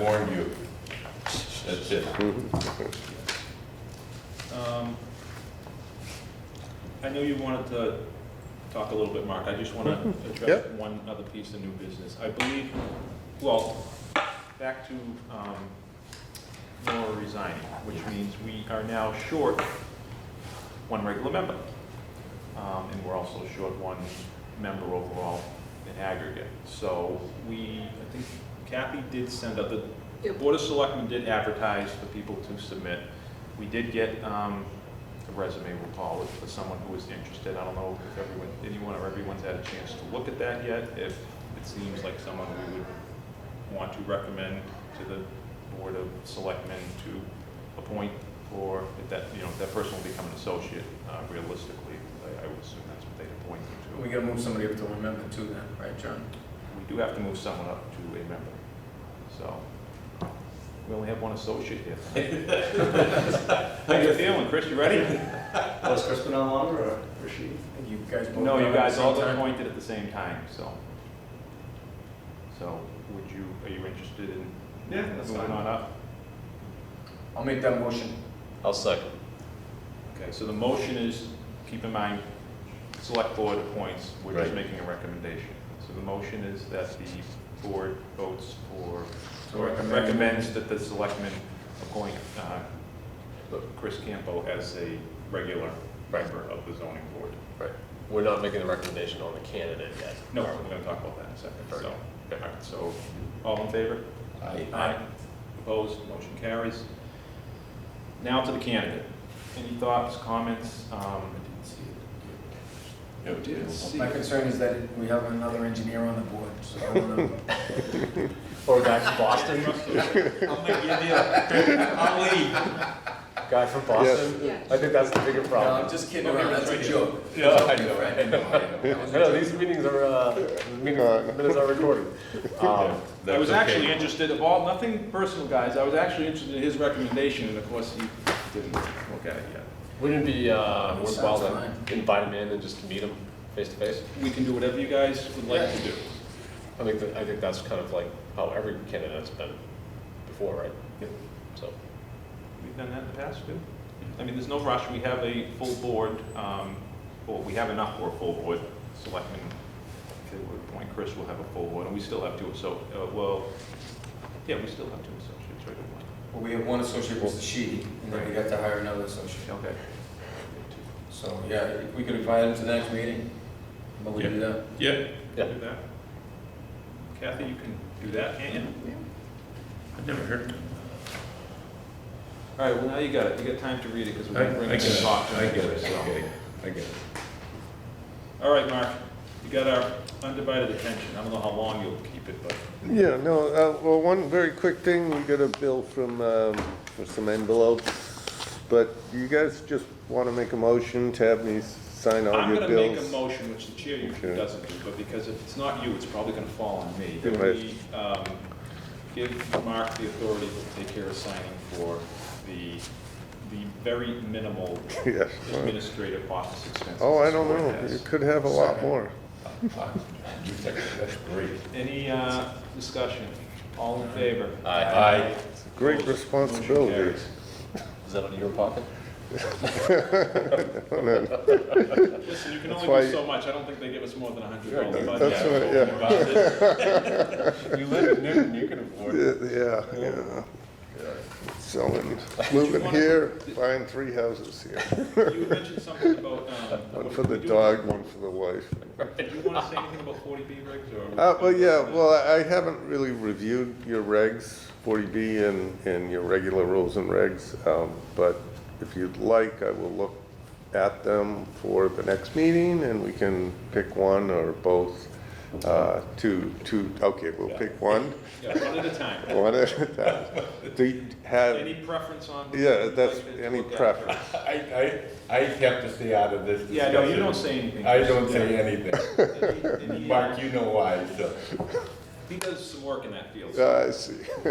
warned you. That's it. Um, I know you wanted to talk a little bit, Mark, I just want to address Yep. one other piece of new business. I believe, well, back to um, Nora resigning, which means we are now short one regular member. Um, And we're also short one member overall in aggregate. So we, I think Kathy did send out, the Board of Selectmen did advertise for people to submit. We did get um, a resume, we'll call it, for someone who was interested. I don't know if everyone, anyone or everyone's had a chance to look at that yet, if it seems like someone we would want to recommend to the Board of Selectmen to appoint for, if that, you know, if that person will become an associate uh, realistically, I- I would assume that's what they'd appoint them to. We gotta move somebody up to one member too then, right, John? We do have to move someone up to a member, so we only have one associate here. How you feeling, Chris, you ready? Was Crispin on longer or was she? You guys both. No, done you at guys the all same got time? appointed at the same time, so. So would you, are you interested in Yeah, moving on up? I'll make that motion. I'll second. Okay, so the motion is, keep in mind, select board appoints, we're just Right. making a recommendation. So the motion is that the board votes for, To or recommend. recommends that the selectmen appoint uh, Chris Campo as a regular member of the zoning board. Right. We're not making the recommendation on the candidate yet. No, we're gonna talk about that in a second, so, Okay. all right, so, all in favor? I, Aye. Opposed, motion carries. Now to the candidate. Any thoughts, comments? Um, you know, did see. My concern is that we have another engineer on the board, so I don't know. Or a guy from Boston, I'll make you a deal. I'll leave. guy from Boston. Yes. I think that's the bigger No, I'm problem. just kidding around, that's a joke. Yeah, I know, I know, I know. I know, these meetings are, uh, meetings, minutes are recorded. Um, I That's was okay. actually interested of all, nothing personal, guys, I was actually interested in his recommendation, and of course, he didn't look at it yet. Wouldn't it be, uh, worthwhile Sounds to invite him in and just to meet him face to face? We can do whatever you guys would like to do. I think, that- I think that's kind of like how every candidate's been before, right? Yep. So, We've done that in the past, too. I mean, there's no rush, we have a full board, um, well, we have enough for a full board. Selectmen, to appoint Chris, will have a full board, and we still have two associates, well, yeah, we still have two associates, right? Well, we have one associate, was the she, and then we got to hire another associate. Okay. So, yeah, we could invite him to the next meeting, but we do that. Yeah. Yeah. Do that. Kathy, you can do that, can't you? I never heard. All right, well, now you got it. You got time to read it because we're I, I going to bring get this it, off. I get it, okay, I get it. All right, Mark, you got our undivided attention. I don't know how long you'll keep it, but Yeah, no, uh, well, one very quick thing, we got a bill from, um, for some envelopes, but you guys just want to make a motion to have me sign all I'm your going to make a bills? motion, which the chair usually Okay. doesn't do, but because if it's not you, it's probably going to fall on me. Right. That we um, give Mark the authority to take care of signing for the, the very minimal Yes. administrative office expenses. Oh, I this don't board know, has. you could have a lot more. You think That's great. Any uh, discussion? All in favor? Aye. Great Opposed? Motion responsibility. carries. is that out of your pocket? Listen, you can only That's do why- so much. I don't think they give us more than a hundred Sure, dollars. that's what- You live in Newton, you can afford it. Yeah, yeah, yeah. Selling, moving here, buying three houses here, You mentioned something about, um. one what for we the do. dog, one for the wife. Did you wanna say anything about forty B regs or? Uh, well, yeah, well, I I haven't really reviewed your regs, 40B and, and your regular rules and regs, um, but if you'd like, I will look at them for the next meeting, and we can pick one or both, uh, two, two, okay, we'll pick one, Yeah, one at a time. one at a time. Do you have, Any preference on? what Uh, yeah, you'd that's, like to any look at? preference. I, I, I have to stay out of this Yeah, no, you discussion. don't say anything. I don't say anything. anything. And he, uh, Mark, you know why, so. he does some work in that field. What Uh, I see. do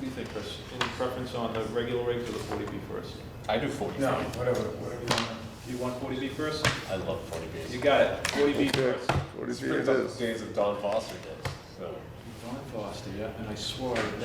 you think, Chris? Any preference on the regular regs or the forty B first? I do forty No, whatever, whatever you want. You want forty B first? I love forty Bs. You got it. Forty B Okay, first. 40B it is. Days of Don Foster days, so. Ron Foster, yeah, and I swore I